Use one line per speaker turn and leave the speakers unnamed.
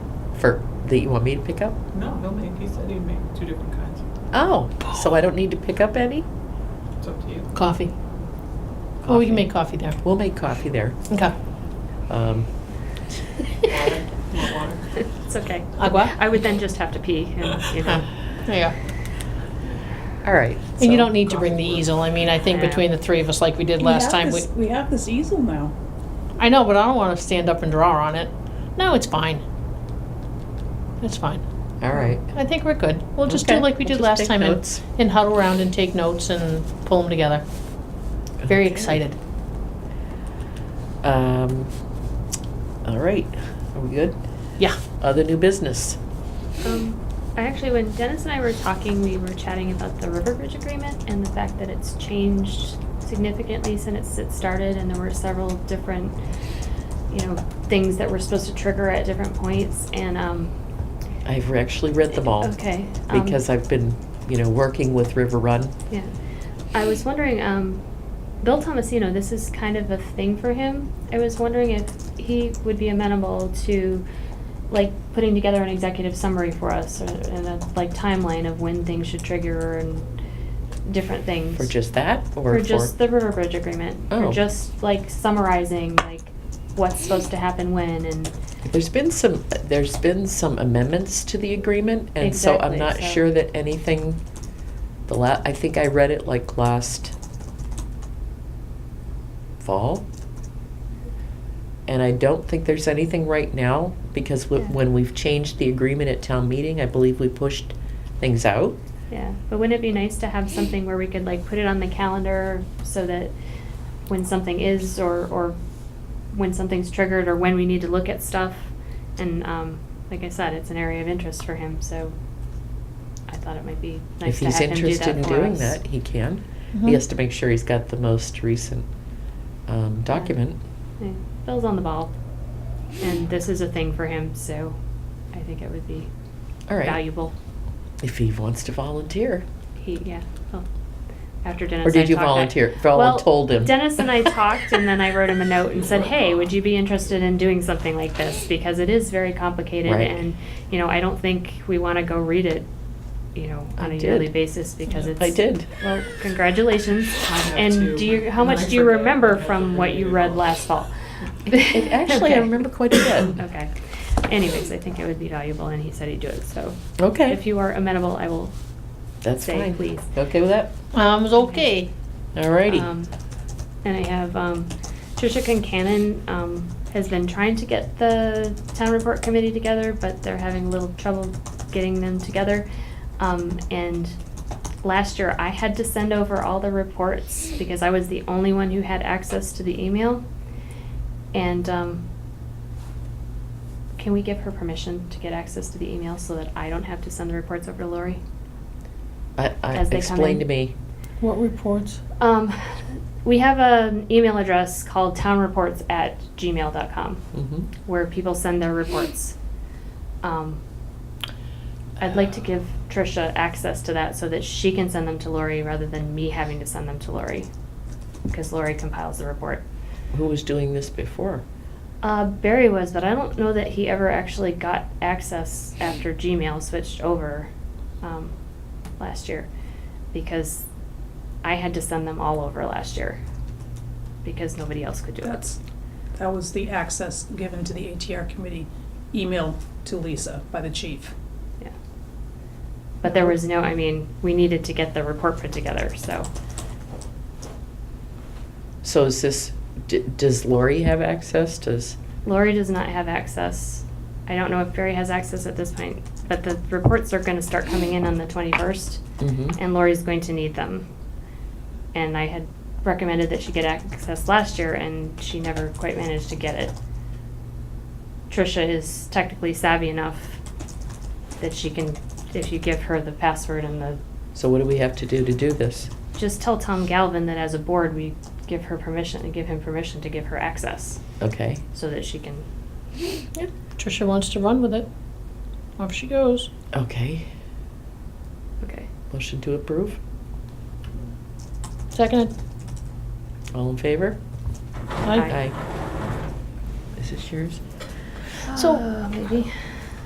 for, that you want me to pick up?
No, he'll make, he said he'd make two different kinds.
Oh, so I don't need to pick up any?
It's up to you.
Coffee. Oh,
Coffee.
we can make coffee there.
We'll make coffee there.
Okay.
Um,
Water, more water.
It's okay.
Agua?
I would then just have to pee and, you know.
Huh. There you go.
all right.
And
so-
you don't need to bring the easel. I mean, I think
Yeah.
between the three of us, like we did
We
last
have
time, we,
this- We have this easel now.
I know, but I don't want to stand up and draw on it. No, it's fine. It's fine.
All right.
I think we're good. We'll just do
Okay,
like we
we'll just
did last
take
time and,
notes.
and huddle around and take notes and pull them together. Very
Okay.
excited.
Um, all right. Are we good?
Yeah.
Other new business?
Um, I actually, when Dennis and I were talking, we were chatting about the River Bridge Agreement and the fact that it's changed significantly since it started, and there were several different, you know, things that were supposed to trigger at different points, and, um.
I've actually read them all.
Okay. um,
Because I've been, you know, working with River Run.
Yeah. I was wondering, um, Bill Tomasino, this is kind of a thing for him. I was wondering if he would be amenable to, like, putting together an executive summary for us or- and a, like, timeline of when things should trigger and different things.
For just that or
For just the River Bridge Agreement.
Oh.
For just, like, summarizing, like, what's supposed to happen when and,
There's been some, there's been some amendments to the agreement, and so I'm
Exactly,
not
so-
sure that anything, the la, I think I read it like last fall. And I don't think there's anything right now, because
Yeah.
wh- when we've changed the agreement at town meeting, I believe we pushed things out.
yeah. But wouldn't it be nice to have something where we could, like, put it on the calendar so that when something is or, or when something's triggered or when we need to look at stuff. And um, like I said, it's an area of interest for him, so I thought it might be nice
If
to
he's
have him do
interested in
that for
doing
us.
that, he can.
Mhm.
Mm-hmm.
He has to make sure he's got the most recent, um, document.
Yeah, Bill's on the ball, and this is a thing for him, so I think it would be
All right,
valuable.
if he wants to volunteer.
He yeah. Well, after Dennis,
Or
and I
did you
talked, I-
volunteer? Well, told him.
Dennis and I talked, and then I wrote him a note and said, "Hey, would you be interested in doing something like this? Because it is very complicated,
Right.
and you know, I don't think we want to go read it, you know,
I
on a
did.
yearly basis because it's."
I did.
Well, congratulations.
I have two,
And do you? How
and I
much do you
forget.
remember from what you read last fall?
It- Actually, I
Okay.
remember quite a bit.
Okay. Anyways, I think it would be valuable, and he said he'd do it. So, if
Okay,
you are amenable, I will
that's
say,
fine.
please.
Okay with that?
Um, it's okay.
Alrighty.
Um, And I have, um, Tricia Concanon, um, has been trying to get the town report committee together, but they're having a little trouble getting them together. Um, and last year I had to send over all the reports because I was the only one who had access to the email. And, um, can we give her permission to get access to the email so that I don't have to send the reports over to Lori?
I, I,
as they come
explain
in.
to me.
What reports?
Um, we have an email address called townreports at gmail.com
Mhm.
where people send their reports. Um, I'd like to give Tricia access to that so that she can send them to Lori rather than me having to send them to Lori because Lori compiles the report.
Who was doing this before?
Uh, Barry was, but I don't know that he ever actually got access after Gmail switched over um, last year because I had to send them all over last year because nobody else could do it.
That's, that was the access given to the ATR committee, email to Lisa by the chief.
Yeah. But there was no, I mean, we needed to get the report put together, so
So is this, d- does Lori have access? Does,
Lori does not have access. I don't know if Barry has access at this point, but the reports are going to start coming in on the 21st.
mhm.
and Lori's going to need them. And I had recommended that she get access last year, and she never quite managed to get it. Trisha is technically savvy enough that she can, if you give her the password and the,
so what do we have to do to do this?
just tell Tom Galvin that as a board, we give her permission, and give him permission to give her access,
Okay,
so that she can,
Yeah. Trisha wants to run with it. Off she goes.
okay.
okay.
Motion to approve?
Seconded.
All in favor?
Aye.
Aye.
Is this yours?
So- Oh,
Uh, Maybe.